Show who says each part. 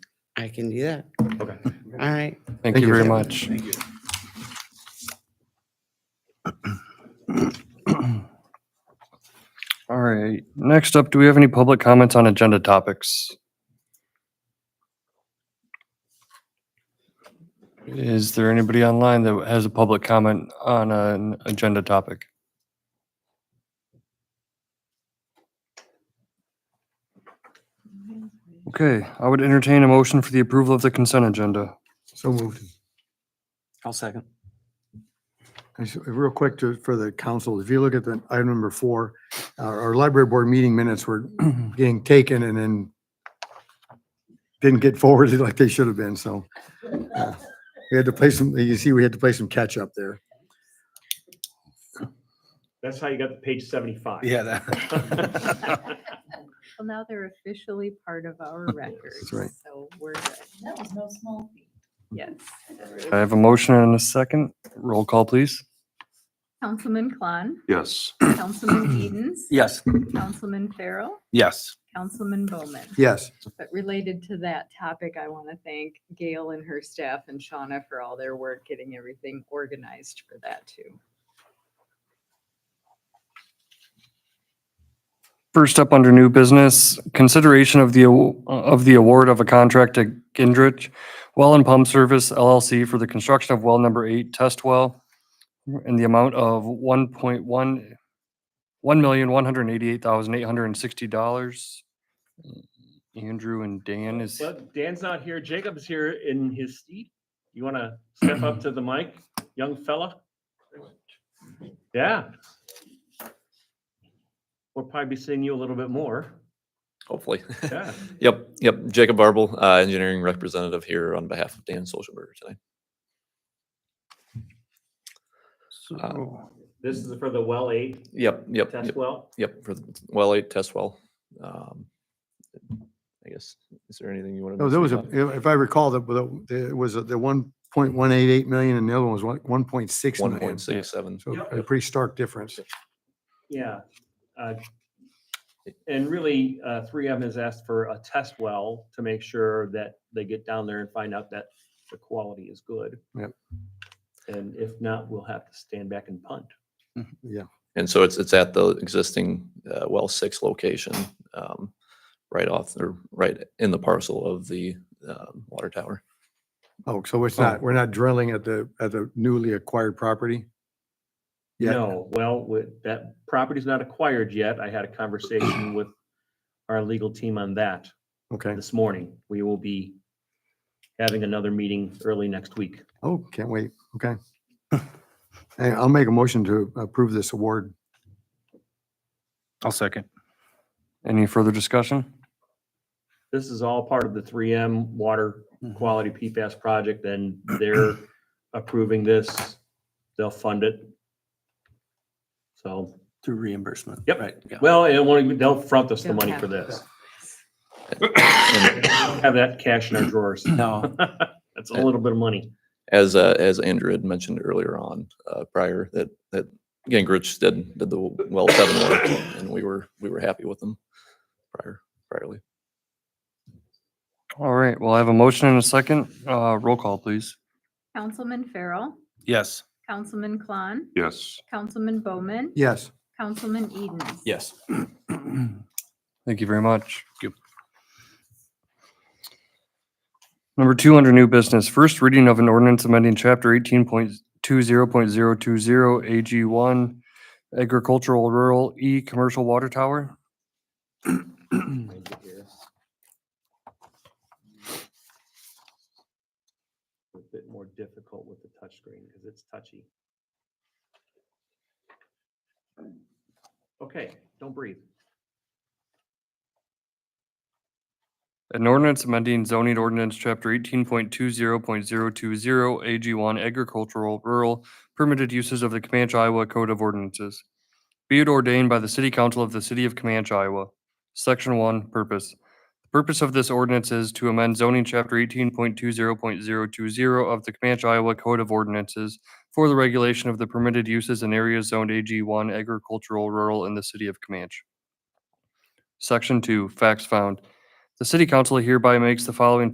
Speaker 1: I can do that.
Speaker 2: Okay.
Speaker 1: All right.
Speaker 3: Thank you very
Speaker 1: you.
Speaker 3: much. All right, next up, do we have any public comments on agenda topics? Is there anybody online that has a public comment on an agenda topic? Okay, I would entertain a motion for the approval of the consent agenda.
Speaker 4: So moved.
Speaker 5: I'll second.
Speaker 4: I s- Real quick to, for the council, if you look at the item number four, our, our library board meeting minutes were getting taken and then didn't get forwarded like they should have been, so. uh, We had to play some, you see, we had to play some catch up there.
Speaker 2: That's how you got the page seventy-five.
Speaker 6: that.
Speaker 7: Well, now they're officially part of our records,
Speaker 4: right.
Speaker 7: so we're good.
Speaker 6: That was no small feat.
Speaker 7: Yes.
Speaker 3: I have a motion and a second. Roll call, please.
Speaker 7: Councilman Klon,
Speaker 8: Yes.
Speaker 7: Councilman Edens,
Speaker 5: Yes.
Speaker 7: Councilman Farrell,
Speaker 8: Yes.
Speaker 7: Councilman Bowman.
Speaker 4: Yes,
Speaker 7: But related to that topic, I want to thank Gail and her staff and Shauna for all their work getting everything organized for that too.
Speaker 3: First up under new business, consideration of the, aw- of the award of a contract to Gendrich Well and Pump Service LLC for the construction of well number eight test well in the amount of one point one, one million, one hundred and eighty-eight thousand, eight hundred and sixty dollars. Andrew and Dan is,
Speaker 2: But Dan's not here. Jacob's here in his seat. You want to step up to the mic, young fella? Yeah. We'll probably be seeing you a little bit more.
Speaker 9: Hopefully.
Speaker 2: Yeah.
Speaker 9: Yep, yep. Jacob Barble, uh, engineering representative here on behalf of Dan Solschenberger tonight.
Speaker 2: This is for the well eight
Speaker 9: Yep, yep,
Speaker 2: test
Speaker 9: yep,
Speaker 2: well.
Speaker 9: yep, for the well eight test well. Um, I guess, is there anything you want to?
Speaker 4: no, there was a, if I recall, the, the- there was a- the one point one eight eight million and the other one was one, one point six
Speaker 9: One
Speaker 4: million.
Speaker 9: point six seven.
Speaker 4: So a pretty stark difference.
Speaker 2: Yeah. uh, And really, uh, 3M has asked for a test well to make sure that they get down there and find out that the quality is good.
Speaker 4: Yep.
Speaker 2: And if not, we'll have to stand back and punt.
Speaker 5: Mm-hmm.
Speaker 9: And so it's, it's at the existing, uh, well six location, um, right off, or right in the parcel of the, um, water tower.
Speaker 4: Oh, so it's not, we're not drilling at the, at the newly acquired property? Yeah.
Speaker 2: No, well, with- that property's not acquired yet. I had a conversation with our legal team on that
Speaker 4: Okay.
Speaker 2: this morning. We will be having another meeting early next week.
Speaker 4: Oh, can't wait. Okay. Hey, I'll make a motion to approve this award.
Speaker 5: I'll second.
Speaker 3: any further discussion?
Speaker 2: This is all part of the 3M water quality PFAS project, and they're approving this. They'll fund it. So,
Speaker 5: Through reimbursement.
Speaker 2: Yep.
Speaker 5: Right. yeah.
Speaker 2: well, it won't- they'll front us the
Speaker 7: They'll
Speaker 2: money
Speaker 7: have
Speaker 2: for
Speaker 7: it.
Speaker 2: this.
Speaker 9: And
Speaker 2: Have that cash in our drawers.
Speaker 5: No.
Speaker 2: That's a little bit of money.
Speaker 9: as uh, as Andrew had mentioned earlier on uh, prior that that Gingrich did did the well seven work and we were we were happy with them prior priorly.
Speaker 3: All right, well, I have a motion and a second. Uh, roll call, please.
Speaker 7: Councilman Farrell,
Speaker 5: Yes.
Speaker 7: Councilman Klon,
Speaker 8: Yes.
Speaker 7: Councilman Bowman,
Speaker 4: Yes.
Speaker 7: Councilman Edens.
Speaker 9: Yes.
Speaker 3: Thank you very much. Number two under new business, first reading of an ordinance amending chapter eighteen point two zero point zero two zero AG one agricultural rural E commercial water tower.
Speaker 2: A bit more difficult with the touchscreen because it's touchy. Okay, don't breathe.
Speaker 3: An ordinance amending zoning ordinance chapter eighteen point two zero point zero two zero AG one agricultural rural permitted uses of the Comanche Iowa Code of Ordinances. Be it ordained by the City Council of the City of Comanche, Iowa. Section one, purpose. The purpose of this ordinance is to amend zoning chapter eighteen point two zero point zero two zero of the Comanche Iowa Code of Ordinances for the regulation of the permitted uses in areas zoned AG one agricultural rural in the City of Comanche. Section two, facts found. The city council hereby makes the following